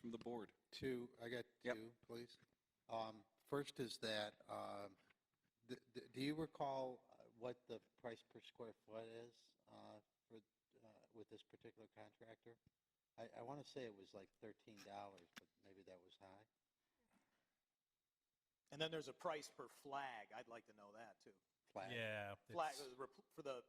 from the board. Two, I got Yep. two, please. Um, First is that, um, th- th- do you recall uh, what the price per square foot is uh, for, uh, with this particular contractor? I, I want to say it was like $13, but maybe that was high. And then there's a price per flag. I'd like to know that too. Flat. Yeah. Flag it's- uh, rep- for the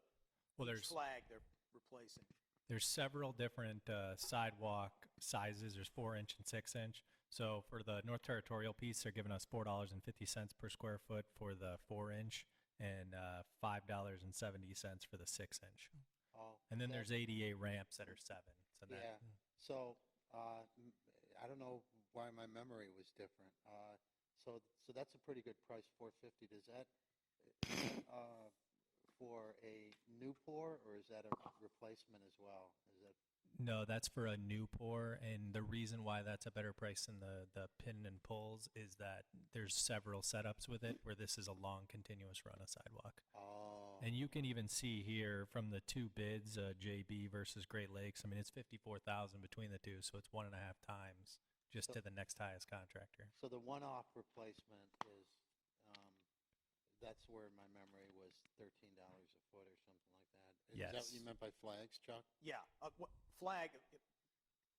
Well, each there's, flag they're replacing. there's several different uh, sidewalk sizes. There's four inch and six inch. So for the North Territorial piece, they're giving us four dollars and fifty cents per square foot for the four inch and uh, five dollars and seventy cents for the six inch. Oh, And then that- there's ADA ramps that are seven. So that, Yeah, so, uh, m- I don't know why my memory was different. Uh, So, so that's a pretty good price, 450. Does that, is that, uh, for a new pour, or is that a replacement as well? Is that, No, that's for a new pour, and the reason why that's a better price than the the pin and pulls is that there's several setups with it where this is a long continuous run of sidewalk. oh. And you can even see here from the two bids, uh, JB versus Great Lakes. I mean, it's fifty-four thousand between the two, so it's one and a half times just So- to the next highest contractor. So the one-off replacement is, um, that's where my memory was $13 a foot or something like that. Is that what you Yes. meant by flags, Chuck? Yeah, a wha- flag, uh,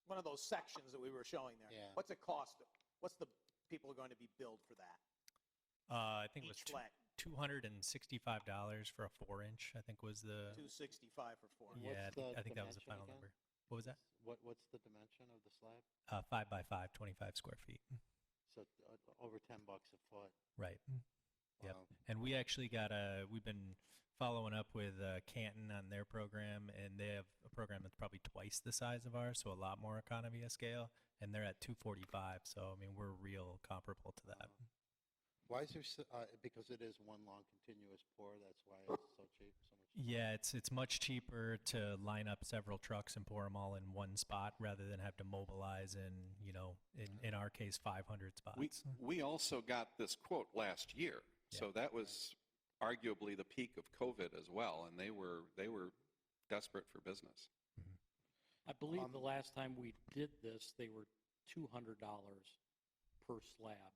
one of those sections that we were showing there. Yeah. What's it cost? What's the people are going to be billed for that? Uh, I think it was Each flag, two hundred and sixty-five dollars for a four-inch. I think was the 265 for four. What's uh, yeah. I think, the I think that was the dimension final again? number. What was that? What, what's the dimension of the slab? Uh, five by five, 25 square feet. So uh, over 10 bucks a foot. Right. Yep. Wow. And we actually got a, we've been following up with uh, Canton on their program, and they have a program that's probably twice the size of ours, so a lot more economy of scale, and they're at 245. So, I mean, we're real comparable to that. Why is there, so- uh, because it is one long continuous pour, that's why it's so cheap, so much. cheaper. Yeah, it's it's much cheaper to line up several trucks and pour them all in one spot rather than have to mobilize in, you know, in, in our case, 500 spots. We, we also got this quote last year. So that was arguably the peak of COVID as well, and they were, they were desperate for business. I believe the Um, last time we did this, they were $200 per slab.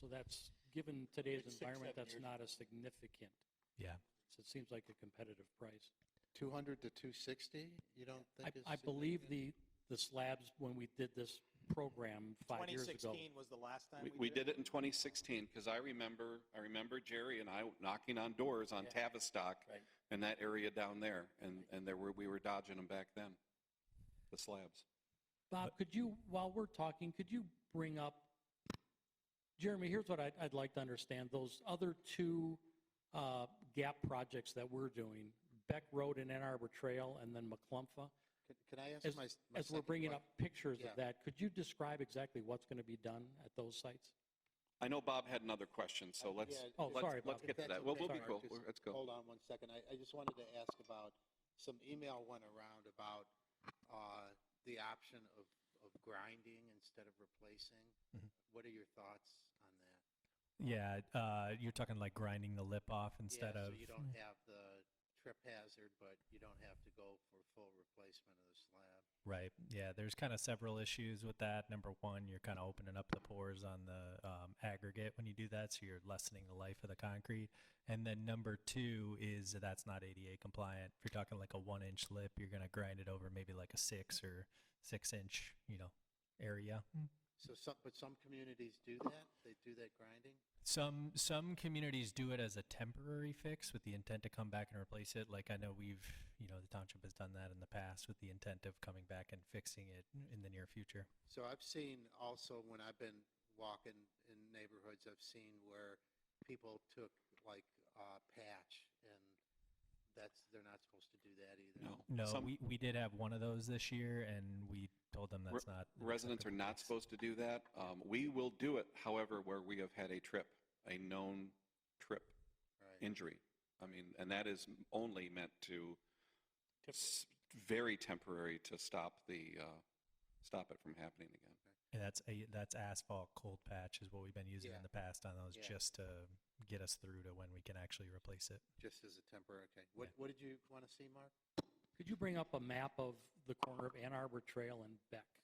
So that's, given today's Six, environment, seven that's years not a significant, yeah. so it seems like a competitive price. 200 to 260, you don't think is? I, I believe the, the slabs, when we did this program five years ago. 2016 was the last time We, we did it in 2016, because I remember, I remember Jerry and I knocking on doors on Tavistock Right. and that area down there, and, and there were, we were dodging them back then, the slabs. Bob, could you, while we're talking, could you bring up, Jeremy, here's what I'd, I'd like to understand. Those other two uh, gap projects that we're doing, Beck Road and Ann Arbor Trail, and then McClumpha, Can- Can I ask As, my? s- my as we're second bringing que- up pictures Yeah. of that, could you describe exactly what's going to be done at those sites? I know Bob had another question, so Uh, let's, yeah, Oh, let's, sorry, let's Bob. get to That's that. Well, okay. we'll be Sorry. cool. Just Let's go. Hold on one second. I, I just wanted to ask about, some email went around about uh, the option of, of grinding instead of replacing. Mhm. What are your thoughts on that? Yeah, uh, you're talking like grinding the lip off instead yeah, of. So you don't have the trip hazard, but you don't have to go for full replacement of the slab. Right. Yeah. There's kind of several issues with that. Number one, you're kind of opening up the pores on the um, aggregate when you do that, so you're lessening the life of the concrete. And then number two is that that's not ADA compliant. If you're talking like a one inch lip, you're gonna grind it over maybe like a six or six inch, you know, area. So some, but some communities do that? They do that grinding? Some some communities do it as a temporary fix with the intent to come back and replace it. Like I know we've, you know, the township has done that in the past with the intent of coming back and fixing it in the near future. So I've seen also when I've been walking in neighborhoods, I've seen where people took like uh, patch and that's, they're not supposed to do that either. No. No, Some- we, we did have one of those this year, and we told them Re- that's not. an Residents are acceptable not price. supposed to do that. Um, We will do it, however, where we have had a trip, a known trip Right. injury. I mean, and that is only meant to, s- very temporary to stop the, uh, stop it from happening again. And that's a that's asphalt cold patch is what we've been using Yeah. in the past on those Yeah. just to get us through to when we can actually replace it. Just as a temporary, okay. What, what did you want to see, Mark? Could you bring up a map of the corner of Ann Arbor Trail and Beck?